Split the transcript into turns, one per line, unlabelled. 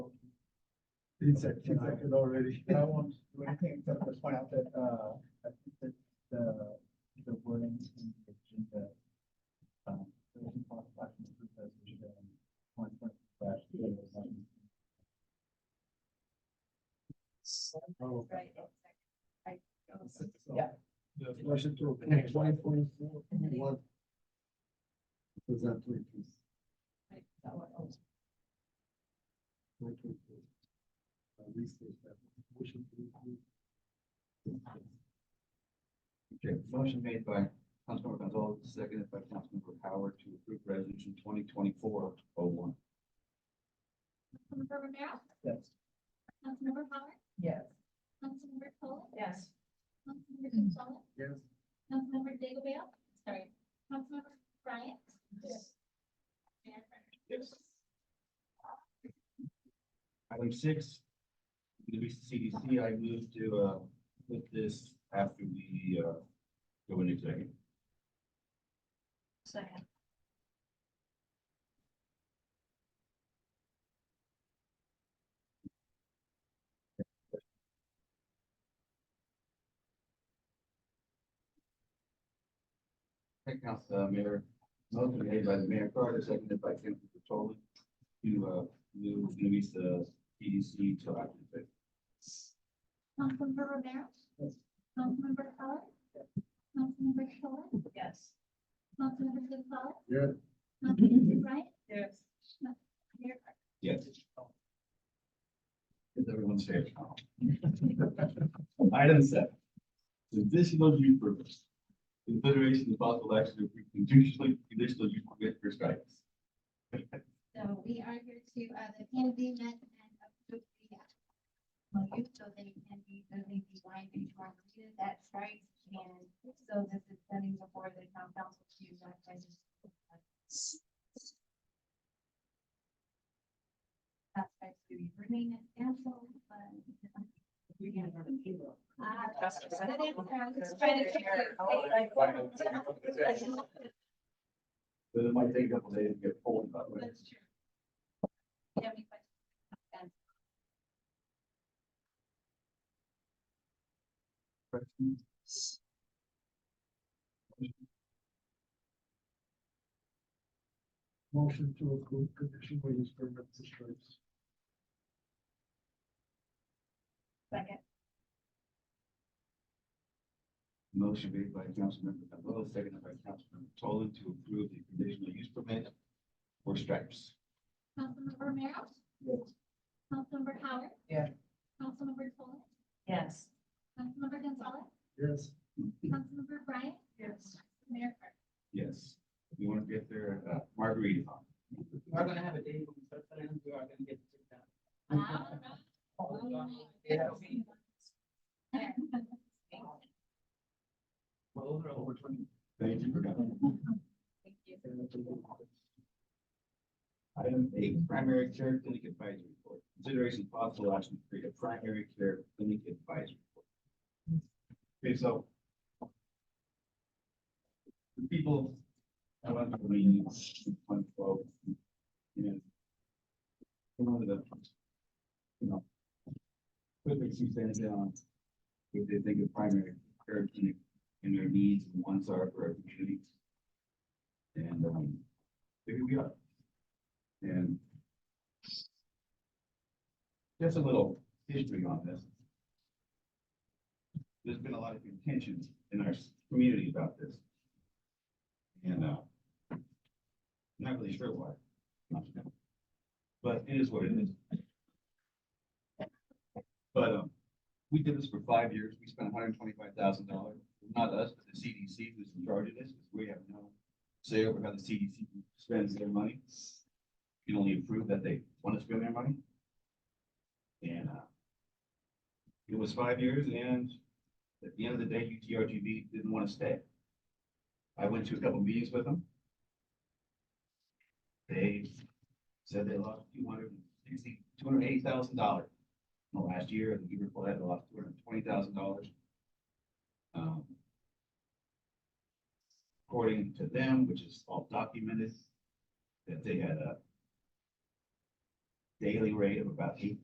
It's accepted already.
I won't do anything except to point out that, uh, I think that the, the wording in the agenda. um, the motion for action is proposed to be, um, one point slash zero one.
Oh.
Right, I,
So,
Yeah.
The motion to approve twenty twenty-four, what? Was that three piece?
I, that one, oh,
Three piece. Uh, restate that. Motion to approve.
Okay, motion made by Councilmember Gonzalez, seconded by Councilmember Howard to approve resolution twenty twenty-four oh one.
Councilmember Romero,
Yes.
Councilmember Howard,
yes.
Councilmember Cole.
Yes.
Councilmember Gonzalez,
Yes.
Councilmember Digglebale, sorry, Councilmember Bryant.
Yes.
Mayor Vernon.
Yes. Item six, the CDC, I move to, uh, put this after we, uh, go into executive.
Second.
Okay, Council, uh, Mayor, motion made by the Mayor Carter, seconded by Councilmember Tolan to, uh, move uh, Luis, the CDC to active executive.
Councilmember Romero.
Yes.
Councilmember Howard. Councilmember Cole,
Yes.
Councilmember Gonzalez.
Yes.
Councilmember Bryant,
Yes.
Mayor Vernon.
Yes. Is everyone safe? Item seven. Conditional use permit. Consideration of possible action to approve conditional, conditional use permit for strikes.
So we are here to, uh, the plan agreement and approve the uh, use so they can be building the wine and margarita that strikes. And so this is sending before the town council to, uh, register. That's right, to be bringing it down, so, um,
We can have a table.
Ah,
That's-
It's trying to figure it out.
But it might take a couple days to get pulled, by the way.
That's true. Do you have any questions?
Motion to approve conditional use permit for stripes.
Second.
Motion made by Councilmember Gonzalez, seconded by Councilmember Tolan to approve the conditional use permit for stripes.
Councilmember Romero?
Yes.
Councilmember Howard?
Yeah.
Councilmember Cole?
Yes.
Councilmember Gonzalez?
Yes.
Councilmember Bryant?
Yes.
Mayor Carter?
Yes, we want to get their uh, margarita on.
We are gonna have a day when we start planning, we are gonna get to do that.
I don't know.
It'll be-
Thank you.
Well, those are over twenty.
Thank you for coming.
Thank you.
Item eight, primary care clinic advisory report. Consideration of possible action to create a primary care clinic advisory board. Okay, so. The people. I went to the meeting on twelve. You know. Some of the. You know. Quickly see things down. If they think of primary care clinic and their needs and wants are for our community. And, um, here we are. And just a little history on this. There's been a lot of contention in our community about this. And, uh, I'm not really sure why. But it is what it is. But, um, we did this for five years. We spent hundred and twenty-five thousand dollars. Not us, but the CDC who's in charge of this, because we have no say over how the CDC spends their money. You can only approve that they want to spend their money. And, uh, it was five years and at the end of the day, UTRGV didn't want to stay. I went to a couple meetings with them. They said they lost two hundred and sixty, two hundred and eighty thousand dollars in the last year, and the year before that, they lost two hundred and twenty thousand dollars. Um, according to them, which is all documented, that they had a daily rate of about eight